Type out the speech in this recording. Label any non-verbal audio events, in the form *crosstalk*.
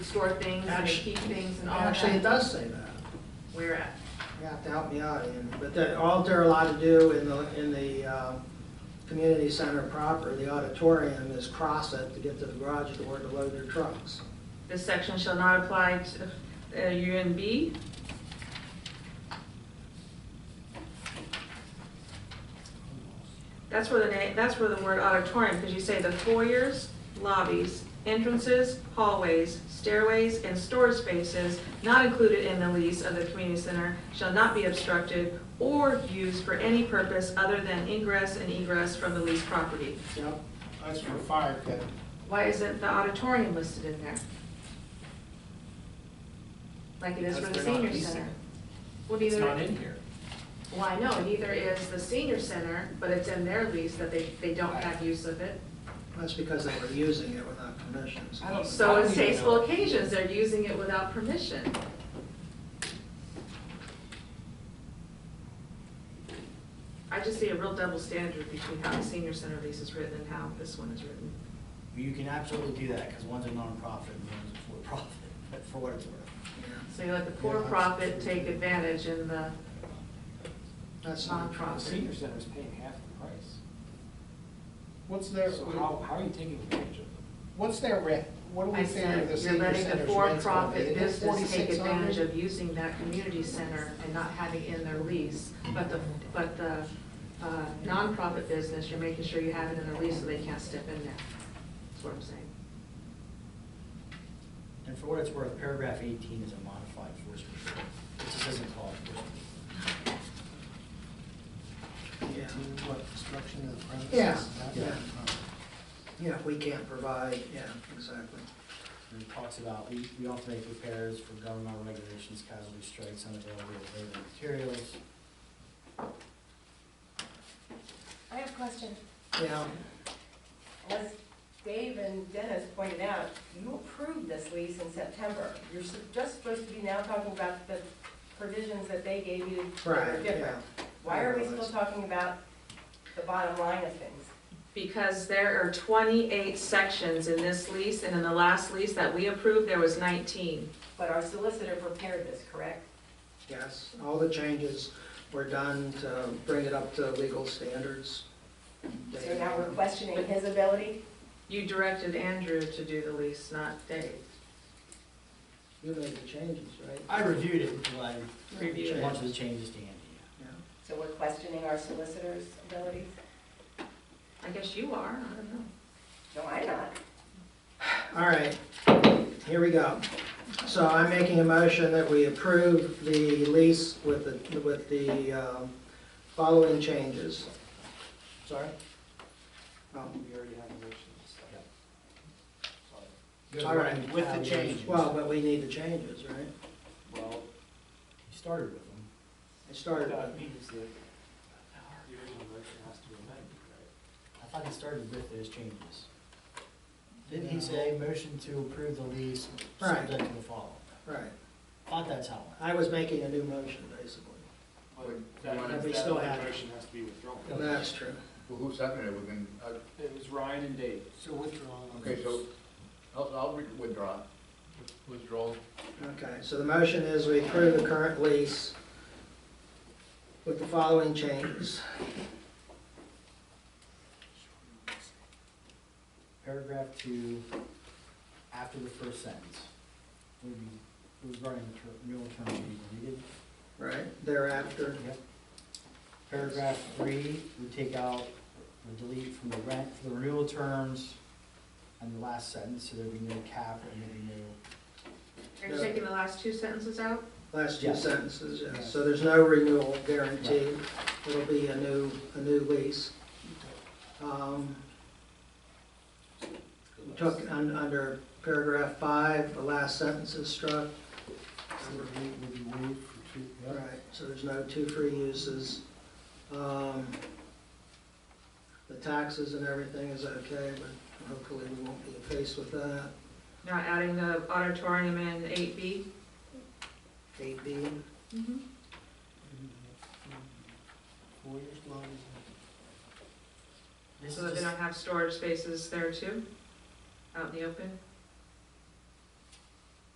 store things and they Actu- keep things and all that. Oh, Actually, it does say that. Where at? You have to help me out, Ian. But that, all they're allowed to do in the, in the, uh, community center proper, the auditorium, is cross it to get to the garage door to load their trucks. This section shall not apply to uh, UNB. That's where the, na- that's where the word auditorium, because you say the foyers, lobbies, entrances, hallways, stairways, and storage spaces not included in the lease of the community center shall not be obstructed or used for any purpose other than ingress and egress from the leased property. Yep. That's for fire pit. Why isn't the auditorium listed in there? Like it is for the Because they're not senior leasing. center? Well, It's not neither, in here. well, I know, neither is the senior center, but it's in their lease that they, they don't have use of it. That's because they were using it without permission. so- Oh, I don't- So in even know. tasteful occasions, they're using it without permission. I just see a real double standard between how the senior center lease is written and how this one is written. You can absolutely do that, because one's a nonprofit and one's a for-profit, *laughs* but for what it's worth. Yeah. So you let the for-profit take advantage in the That's not The nonprofit. senior center's paying half the price. What's their, So how, how are you taking advantage of them? what's their rent? What do I we figure said, the you're senior letting the center's rent's gonna be? for-profit Isn't it business take 4,600? advantage of using that community center and not having it in their lease, but the, but the uh, nonprofit business, you're making sure you have it in their lease so they can't step in there. That's what I'm saying. And for what it's worth, paragraph eighteen is a modified force majeure. It just doesn't call it force Yeah. To What, destruction of the premises? Yeah, Is that- yeah. Yeah, if we can't provide, yeah, exactly. And it talks about, we, we also make repairs for governmental regulations, casualty strikes, unavailable labor and materials. I have a question. Yeah, As Dave and Dennis pointed out, you approved this lease in September. You're s- just supposed to be now talking about the provisions that they gave you that are right, different. yeah. Why are we Otherwise- still talking about the bottom line of things? Because there are 28 sections in this lease, and in the last lease that we approved, there was 19. But our solicitor prepared this, correct? Yes, all the changes were done to bring it up to legal standards. So now we're questioning his ability? You directed Andrew to do the lease, not Dave. You made the changes, right? I reviewed it until I, Reviewed a it. bunch of the changes to Andy. Yeah. yeah. So we're questioning our solicitor's ability? I guess you are, I don't know. No, I'm not. All right, here we go. So I'm making a motion that we approve the lease with the, with the um, following changes. Sorry? Oh, We already have a motion, so. Yep. Good, Sorry. All right. with the change. Well, but we need the changes, right? Well, You started with them. I started, that means that the original motion has to be amended, right? I thought he started with those changes. Didn't he say motion to approve the lease Right. subject to the following? right. Thought that's how it went. I was making a new motion, basically. That- wanna- that we still other have- Motion has to be withdrawn. And that's true. Well, who seconded it within, uh, It was Ryan and Dave. So withdrawal. okay, so, I'll, I'll re- withdraw. Withdraw. Okay, so the motion is we approve the current lease with the following changes. Paragraph two, after the first sentence, would be regarding the ter- renewal term to be deleted. Right, thereafter, Yep. Paragraph three, we take out, we delete from the rent, for the renewal terms, and the last sentence, so there'd be no cap and there'd be no, Are you taking the last two sentences out? last two Yes. sentences, yes. Yes. So there's no renewal guarantee. It'll be a new, a new lease. Um, we Took, un- under paragraph five, the last sentence is struck. Would you move for two? Right, so there's no two free uses. Um, The taxes and everything is okay, but hopefully we won't be faced with that. Not adding the auditorium in 8B? Eight B, Mm-hmm. Four years long. this So that is they just, don't have storage spaces there too, out in the open?